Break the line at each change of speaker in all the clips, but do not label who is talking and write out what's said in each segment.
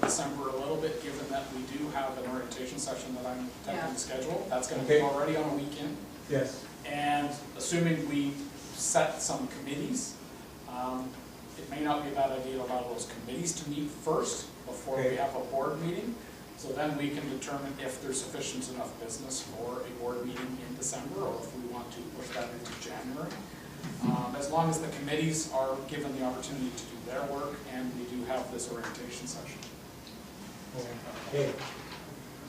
December a little bit, given that we do have an orientation session that I'm attempting
Yeah.
to schedule. That's gonna be
Okay.
already on a weekend.
Yes.
And assuming we set some committees, um, it may not be a bad idea to allow those committees to meet first before we
Okay.
have a board meeting. So then we can determine if there's sufficient enough business for a board meeting in December or if we want to push that into January. Um, As long as the committees are given the opportunity to do their work and we do have this orientation session.
Okay.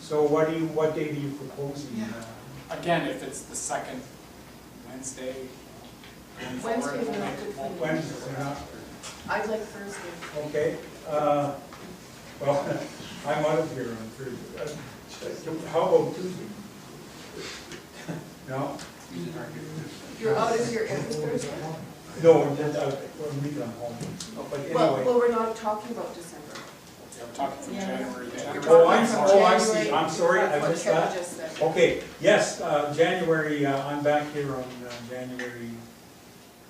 So what do you, what date are you proposing? uh,
Again, if it's the second Wednesday. going forward,
Wednesday's
we'll
not
make-
good for me.
Wednesday, or not?
I'd like Thursday.
Okay, uh, well, I'm out of here on Thursday. Uh, How about Tuesday? No?
You're out of here every Thursday?
No, I'm just, uh, I'm leaving home. But
Well,
anyway.
well, we're not talking about December.
Yeah, we're talking from
Yeah.
January. to-
We're
Oh,
talking
I'm-
from
oh, I see.
January.
I'm sorry, I
That's what
missed
Kevin
that.
just said.
Okay, yes, uh, January, uh, I'm back here on uh, January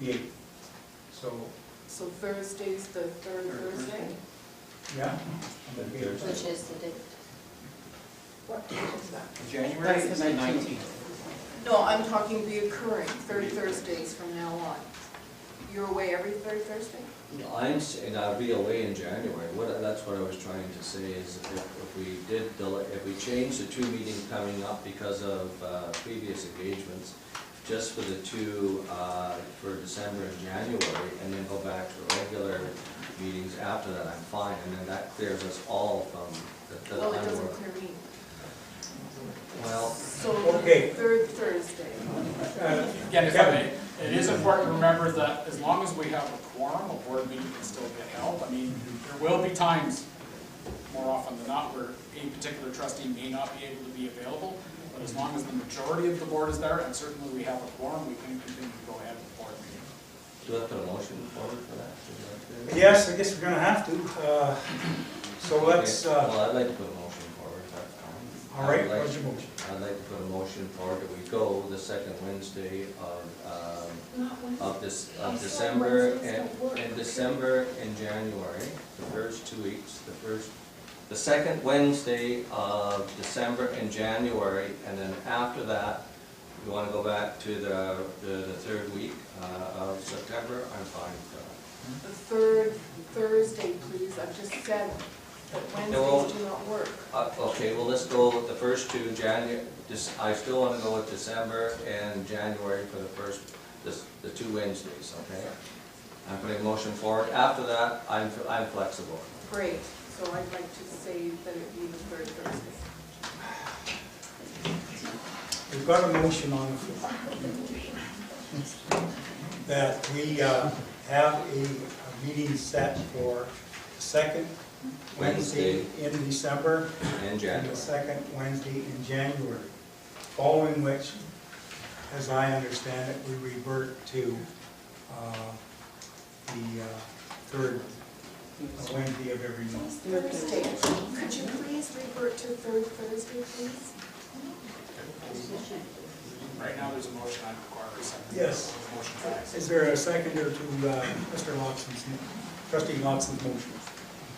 the 8th. So,
So Thursday's the third Thursday?
yeah?
Which is the date?
What date is that?
January
That's
is
the
the
19th.
nineteenth.
No, I'm talking reoccurring, third Thursdays from now on. You're away every third Thursday?
I'm saying I'll be away in January, what, that's what I was trying to say is if, if we did, delay- if we change the two meetings coming up because of, uh, previous engagements, just for the two, uh, for December and January, and then go back to regular meetings after that, I'm fine, and then that clears us all from the, the
Well, it
time
doesn't
we're-
clear me.
Well,
So
Okay.
third Thursday.
Uh,
Again, if I
Kevin.
may, it is important to remember that as long as we have a quorum, a board meeting can still get held. I mean, there will be times, more often than not, where a particular trustee may not be able to be available, but as long as the majority of the board is there, and certainly we have a quorum, we can continue to go ahead with the board meeting.
do I put a motion forward for that? Would you like to-
Yes, I guess we're gonna have to. Uh, So let's,
Okay,
uh,
Well, I'd like to put a motion forward, if that's fine.
all right,
I'd like-
what's your motion?
I'd like to put a motion forward that we go the second Wednesday of,
Not
um, of this,
I'm
of
sorry,
December
Wednesdays
and,
don't work.
and December and January, the first two weeks, the first, the second Wednesday of December and January, and then after that, we wanna go back to the, the, the third week, uh, of September, I'm fine with that.
The third Thursday, please, I've just said that Wednesdays do not work.
Uh, Okay, well, let's go with the first two, Janu, Dec- I still want to go with December and January for the first, this- the two Wednesdays, okay? I'm putting a motion forward. After that, I'm I'm flexible.
Great, so I'd like to say that it be the third Thursday.
We've got a motion on the floor. That we uh, have a a meeting set for the second Wednesday in December
And
and the
January.
second Wednesday in January, following which, as I understand it, we revert to uh, the uh, third Wednesday of every month.
Thursday, could you please revert to third Thursday, please?
Right now, there's a motion I require a second.
Yes.
Motion carries.
Is there a second or to uh, Mr. Lawson's, trustee Lawson's motion?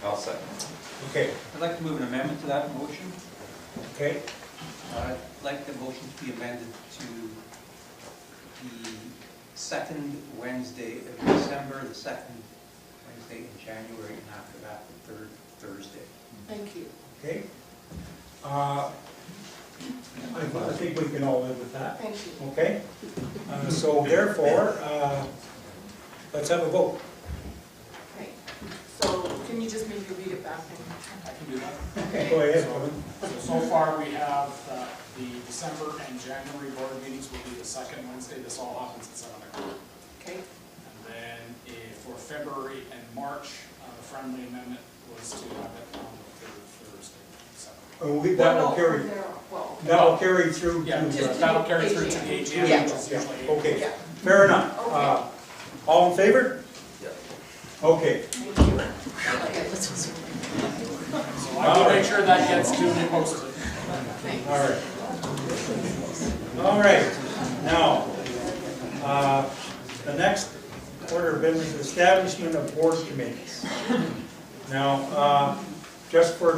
I'll second.
Okay,
I'd like to move an amendment to that motion.
okay,
Uh, I'd like the motion to be amended to the second Wednesday of December, the second Wednesday in January, and after that, the third Thursday.
Thank you.
okay. Uh, I I think we can all live with that,
Thank you.
okay? Uh, So therefore, uh, let's have a vote.
Okay. So can you just maybe read it back?
I can do that.
Go ahead, Kevin.
So so far, we have uh, the December and January board meetings will be the second Wednesday. This all happens at seven o'clock.
Okay,
And then eh, for February and March, uh, the friendly amendment was to have it on the third Thursday. so.
Uh, we- That will carry,
Well,
that will carry through
Yeah,
to,
just-
uh,
that'll carry through to the AGM, which is
Yeah.
usually April.
okay,
yeah,
fair enough. Uh, All in favor?
Yeah.
Okay,
thank you. Okay, this was-
So I will make sure that gets duly posted.
thanks.
all right. All right, now, uh, the next order of business, establishment of board committees. Now, uh, just for